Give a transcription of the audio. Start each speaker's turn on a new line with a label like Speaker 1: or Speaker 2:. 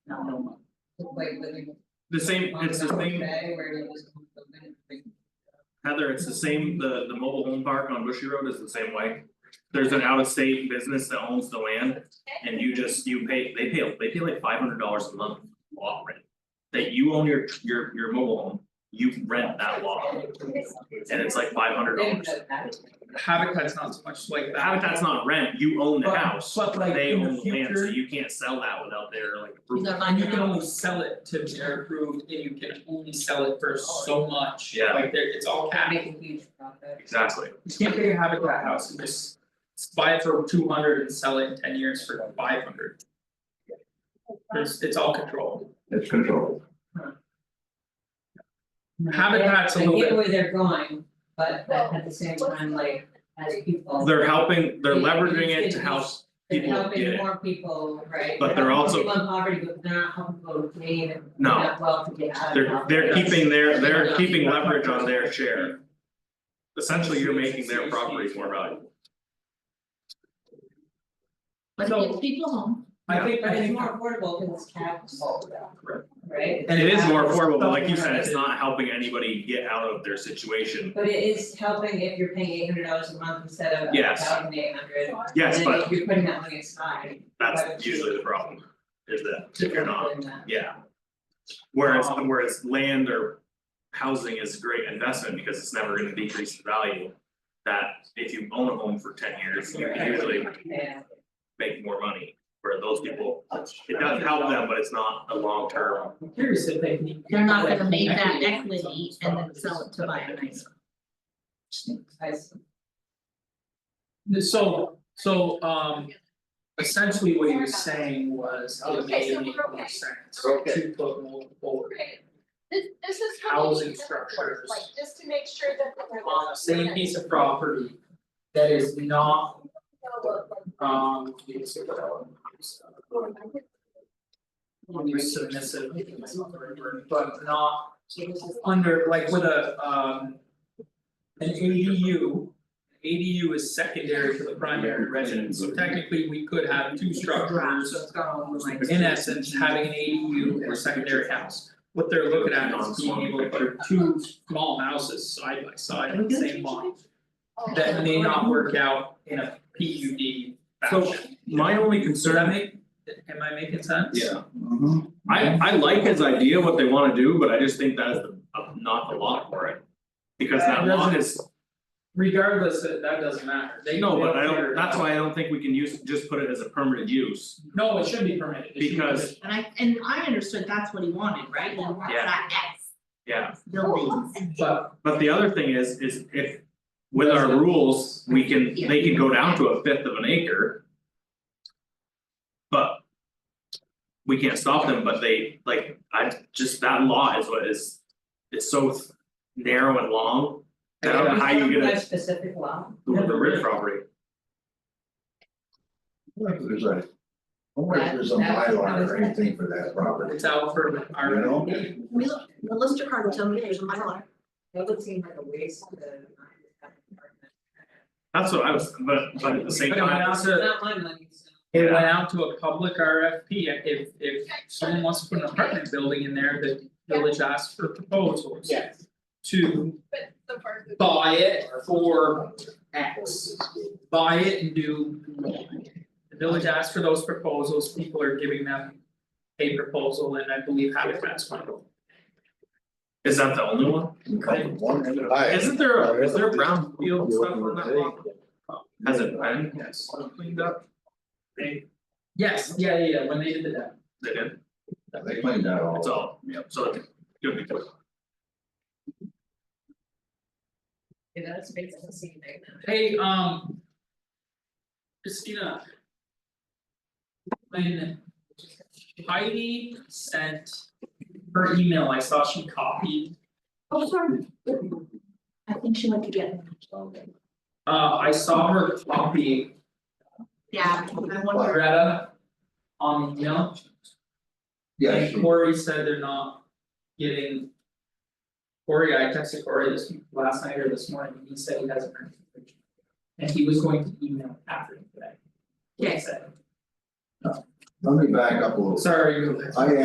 Speaker 1: Tacoma.
Speaker 2: like living.
Speaker 1: The same, it's the same,
Speaker 2: Bay where it was living, like,
Speaker 1: Heather, it's the same, the the mobile home park on Bushy Road is the same way. There's an out of state business that owns the land and you just, you pay, they pay, they pay like five hundred dollars a month lot rent. That you own your your your mobile home, you rent that lot and it's like five hundred
Speaker 2: they didn't
Speaker 1: dollars.
Speaker 2: know that.
Speaker 3: Habitat's not so much like
Speaker 1: The
Speaker 3: that,
Speaker 1: habitat's not rent, you own the
Speaker 3: But-
Speaker 1: house,
Speaker 3: but like
Speaker 1: they
Speaker 3: in the
Speaker 1: own the land, so
Speaker 3: future-
Speaker 1: you can't sell that without their like approval.
Speaker 3: and you can only sell it to their approved, and you can only sell it for so much,
Speaker 1: Oh, Yeah.
Speaker 3: like there, it's all capped.
Speaker 2: Make a huge profit.
Speaker 1: Exactly,
Speaker 3: You can't take a habitat house and just buy it for two hundred and sell it in ten years for five hundred. It's it's all controlled,
Speaker 4: It's controlled.
Speaker 3: habitat's a little
Speaker 2: I get
Speaker 3: bit,
Speaker 2: where they're going, but at at the same time, like, as people.
Speaker 1: they're helping, they're
Speaker 2: Yeah,
Speaker 1: leveraging it
Speaker 2: it's
Speaker 1: to
Speaker 2: good.
Speaker 1: help
Speaker 2: They're
Speaker 1: people get
Speaker 2: helping
Speaker 1: it.
Speaker 2: more people, right?
Speaker 1: But they're
Speaker 2: helping
Speaker 1: also-
Speaker 2: people in poverty, but they're not helping people to gain and
Speaker 1: No.
Speaker 2: not well to get out of
Speaker 1: They're
Speaker 2: poverty.
Speaker 1: they're
Speaker 2: That's-
Speaker 1: keeping their, they're
Speaker 2: Yeah.
Speaker 1: keeping leverage on their share. Essentially, you're making their properties more valuable.
Speaker 5: But it gets people home.
Speaker 3: I think,
Speaker 2: But
Speaker 3: I
Speaker 2: it's
Speaker 3: think,
Speaker 2: more affordable because it's taxable.
Speaker 3: Correct.
Speaker 2: Right?
Speaker 3: And
Speaker 1: It is more affordable, but like you
Speaker 3: Something
Speaker 1: said, it's
Speaker 3: that-
Speaker 1: not helping anybody get out of their situation.
Speaker 2: But it is helping if you're paying eight hundred dollars a month instead of a
Speaker 1: Yes.
Speaker 2: thousand eight hundred.
Speaker 1: Yes,
Speaker 2: And then
Speaker 1: but
Speaker 2: if you're putting that money aside.
Speaker 1: that's usually the problem, is that
Speaker 2: to
Speaker 1: if you're not,
Speaker 2: put in that.
Speaker 1: yeah. Whereas whereas land or housing is a great investment because it's never gonna decrease in value. That if you own a home for ten years, you can usually
Speaker 2: Yeah.
Speaker 1: make more money, where those people, it does help them, but it's not a long term.
Speaker 3: I'm curious if they can.
Speaker 5: They're not gonna make that equity and then sell it to buy a nicer.
Speaker 2: I see.
Speaker 3: So, so, um, essentially what he was saying was, oh, it
Speaker 6: Okay,
Speaker 3: made
Speaker 6: so
Speaker 3: more
Speaker 6: we're okay.
Speaker 3: sense
Speaker 4: We're okay.
Speaker 3: to put multiple
Speaker 6: Great. This, this is how we
Speaker 3: housing
Speaker 6: need to work,
Speaker 3: structures
Speaker 6: like, just to make sure that. we're-
Speaker 3: on the same piece of property that is not, um, use of submissive, but not under, like with a, um, an ADU. ADU is secondary to the primary residence, so technically we could have two structures
Speaker 2: So it's gone with like.
Speaker 3: in essence, having an ADU or secondary house. What they're looking at is being able to put two small houses side by side in the same lot. That may not work out in a PUD
Speaker 1: So,
Speaker 3: fashion.
Speaker 1: my only
Speaker 3: Does that
Speaker 1: concern,
Speaker 3: make, am I making sense?
Speaker 1: yeah, I I like his idea, what they wanna do, but I just think that is the, uh, not the lot for it. Because that lot is,
Speaker 3: Regardless, uh, that that doesn't matter, they
Speaker 1: no, but I
Speaker 3: they'll figure
Speaker 1: don't,
Speaker 3: it
Speaker 1: that's
Speaker 3: out.
Speaker 1: why I don't think we can use, just put it as a permanent use.
Speaker 3: No, it should be permitted, it should be
Speaker 1: Because-
Speaker 3: permitted.
Speaker 5: And I, and I understood that's what he wanted, right? He wants
Speaker 1: Yeah.
Speaker 5: that
Speaker 1: Yeah,
Speaker 5: X buildings.
Speaker 3: But
Speaker 1: but the other thing is, is if with our rules, we can, they can go down to a fifth of an acre. But. We can't stop them, but they, like, I just, that law is what is, it's so narrow and long. I don't know how you
Speaker 2: Some
Speaker 1: get
Speaker 2: kind of
Speaker 1: a,
Speaker 2: specific law.
Speaker 1: the rib property.
Speaker 4: What if there's a, I wonder if there's a
Speaker 2: That- that's-
Speaker 4: bylaw or anything for that property,
Speaker 3: it's out for
Speaker 4: you
Speaker 3: our,
Speaker 4: know?
Speaker 5: We look, the Lister card will tell me there's a Mylar.
Speaker 2: That would seem like a waste of the. uh,
Speaker 1: That's what I was, but but at the same
Speaker 3: But it went
Speaker 1: time,
Speaker 3: out
Speaker 2: It's
Speaker 3: to,
Speaker 2: not my money, so.
Speaker 3: it went out to a public RFP, if if someone wants to put an apartment building in there, the village asks for proposals.
Speaker 2: Yes.
Speaker 3: to
Speaker 6: But the part that-
Speaker 3: buy it for X. Buy it and do. The village asked for those proposals, people are giving them a proposal and I believe Habitat's one of them.
Speaker 1: is that the only one?
Speaker 4: One end of the aisle.
Speaker 1: Isn't there, a- is there a brownfield stuff on that lot? Has it been
Speaker 3: Yes.
Speaker 1: cleaned up? They
Speaker 3: Yes, yeah, yeah, yeah, when they did that.
Speaker 1: they did,
Speaker 4: They cleaned that all.
Speaker 1: it's all, yeah, so it's gonna be quick.
Speaker 2: Yeah, that's basically the same thing now.
Speaker 3: Hey, um. Christina. When Heidi sent her email, I saw she copied,
Speaker 5: Oh, sorry. I think she went to get,
Speaker 3: uh, I saw her copy
Speaker 5: yeah, I wonder,
Speaker 3: Greta on the email.
Speaker 4: Yes,
Speaker 3: And Corey said they're not getting. Corey, I texted Corey this last night or this morning, and he said he hasn't heard anything. And he was going to email Catherine today. He
Speaker 5: Yes.
Speaker 3: said,
Speaker 4: let me back up a little.
Speaker 3: Sorry.
Speaker 4: I